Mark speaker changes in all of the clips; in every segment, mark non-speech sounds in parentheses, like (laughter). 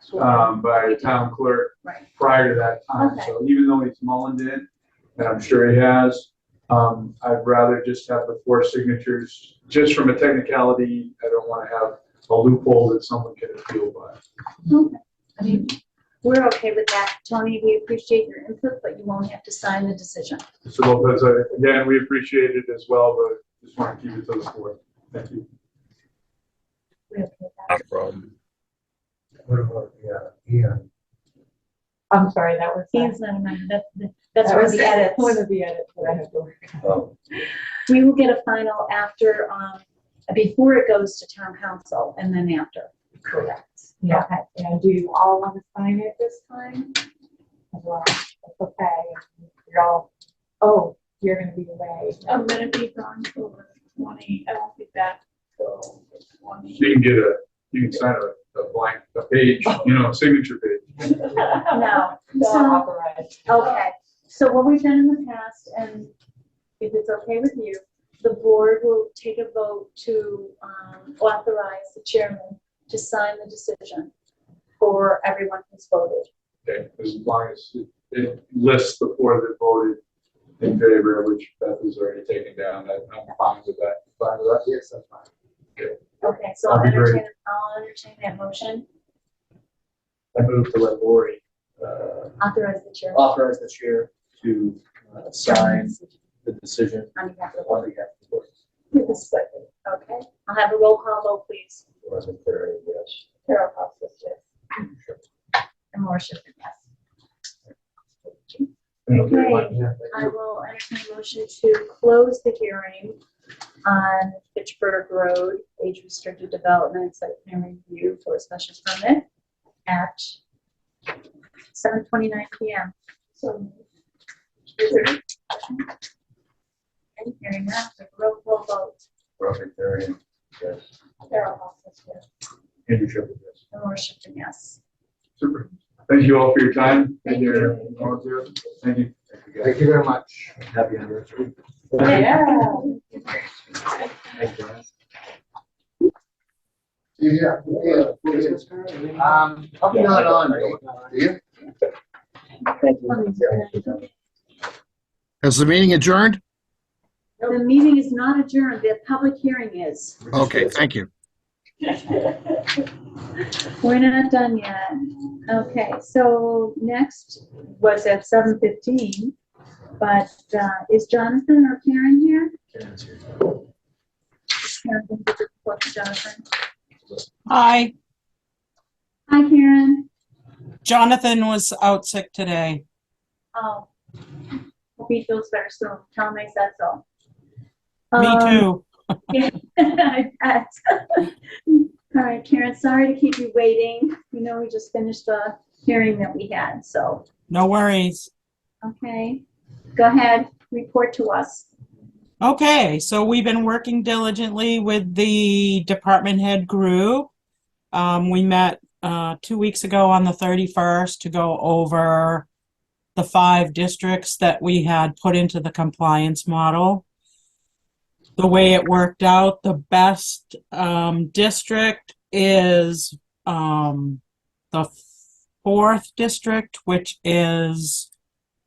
Speaker 1: sworn.
Speaker 2: um, by the town clerk
Speaker 1: Right.
Speaker 2: prior to that time.
Speaker 1: Okay.
Speaker 2: So even though he's mullined it, and I'm sure he has, um, I'd rather just have the four signatures, just from a technicality, I don't want to have a loophole that someone can appeal by.
Speaker 1: I mean, We're okay with that. Tony, we appreciate your input, but you won't have to sign the decision.
Speaker 2: So Lopez, I- again, we appreciate it as well, but just want to keep it to the four. Thank you.
Speaker 1: We're okay with that.
Speaker 3: Not a problem.
Speaker 4: What about, yeah, Ian?
Speaker 5: I'm sorry, that was.
Speaker 1: Ian's not a member. That- that- That's where the
Speaker 5: One
Speaker 1: edits.
Speaker 5: of the edits that I have to work on.
Speaker 4: Oh,
Speaker 1: We will get a final after, um, before it goes to town council and then after. Correct.
Speaker 5: Yeah, and do you all want to sign it this time? Well, it's okay, you're all, oh, you're gonna be away. (laughs)
Speaker 6: I'm gonna be gone till the twenty, I won't be back till the
Speaker 2: So
Speaker 6: twenty.
Speaker 2: you can get a, you can sign a, a blank, a page, you know, a signature page.
Speaker 1: No,
Speaker 5: So authorized.
Speaker 1: okay. So what we've done in the past, and if it's okay with you, the board will take a vote to um, authorize the chairman to sign the decision for everyone who's voted.
Speaker 2: Okay, as long as it- it lists the four that voted in favor, which Beth has already taken down, I- I'm fine with that. Fine with that? Yes, I'm fine.
Speaker 1: Okay, so I'll
Speaker 2: That'd be great.
Speaker 1: entertain, I'll entertain that motion,
Speaker 4: I move to let Lori, uh,
Speaker 1: authorize the chairman
Speaker 4: authorize the chair to uh, sign the decision
Speaker 1: on behalf of
Speaker 4: on behalf of the board.
Speaker 1: the board. Okay, I'll have a roll call vote, please.
Speaker 4: Wasn't there, yes.
Speaker 1: Carol Cox, yes. And Laura Schiffern, yes. Okay.
Speaker 4: Yeah,
Speaker 1: I will entertain a motion to close the hearing on Fitchburg Road, age restricted development, site plan review for a special permit at seven twenty-nine PM. So. is there any discussion? Any hearing that, the roll call vote,
Speaker 4: Robert Darian, yes.
Speaker 1: Carol Hawkins, yes,
Speaker 4: Andrew Shepherd, yes.
Speaker 1: and Laura Schiffern, yes.
Speaker 2: Super. Thank you all for your time.
Speaker 1: Thank you.
Speaker 2: Thank you.
Speaker 4: Thank you very much. Happy anniversary.
Speaker 5: Yeah. (laughs)
Speaker 4: Thank you.
Speaker 7: Yeah, yeah, yeah. Um, I'm not on, right? Do you?
Speaker 8: Is the meeting adjourned?
Speaker 1: The meeting is not adjourned, the public hearing is.
Speaker 8: Okay, thank you.
Speaker 1: We're not done yet. Okay, so next was at seven fifteen, but uh, is Jonathan or Karen here? Jonathan, give your report to Jonathan.
Speaker 9: Hi,
Speaker 1: Hi, Karen.
Speaker 9: Jonathan was out sick today.
Speaker 1: Oh, hope he feels better soon. Tell him I said so.
Speaker 9: Me
Speaker 1: Um,
Speaker 9: too.
Speaker 1: (laughs) I bet. (laughs) All right, Karen, sorry to keep you waiting. You know, we just finished the hearing that we had, so,
Speaker 9: No worries.
Speaker 1: okay. Go ahead, report to us.
Speaker 9: Okay, so we've been working diligently with the department head group. Um, we met, uh, two weeks ago on the thirty-first to go over the five districts that we had put into the compliance model. The way it worked out, the best, um, district is, um, the fourth district, which is,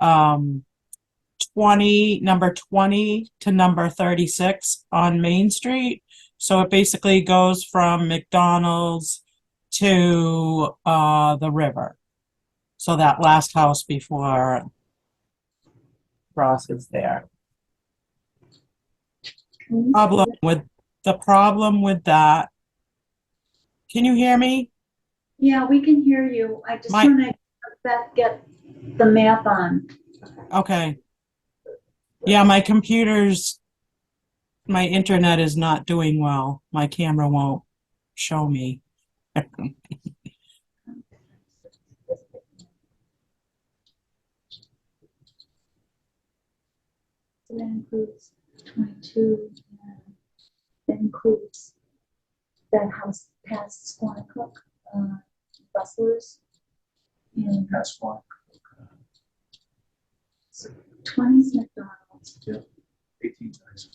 Speaker 9: um, 20, number 20 to number 36 on Main Street. So it basically goes from McDonald's to uh, the river. So that last house before Ross is there. Problem with, the problem with that, can you hear me?
Speaker 1: Yeah, we can hear you. I just
Speaker 9: My-
Speaker 1: want to Beth get the map on.
Speaker 9: Okay. Yeah, my computer's, my internet is not doing well. My camera won't show me.
Speaker 1: So that includes 22, and that includes that house past Squanicook, uh, Rustlers, and
Speaker 4: That's fine.
Speaker 1: 20s McDonald's,
Speaker 4: Eighteen times.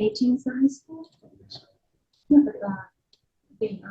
Speaker 1: 18s High School. Yeah, but, uh, the,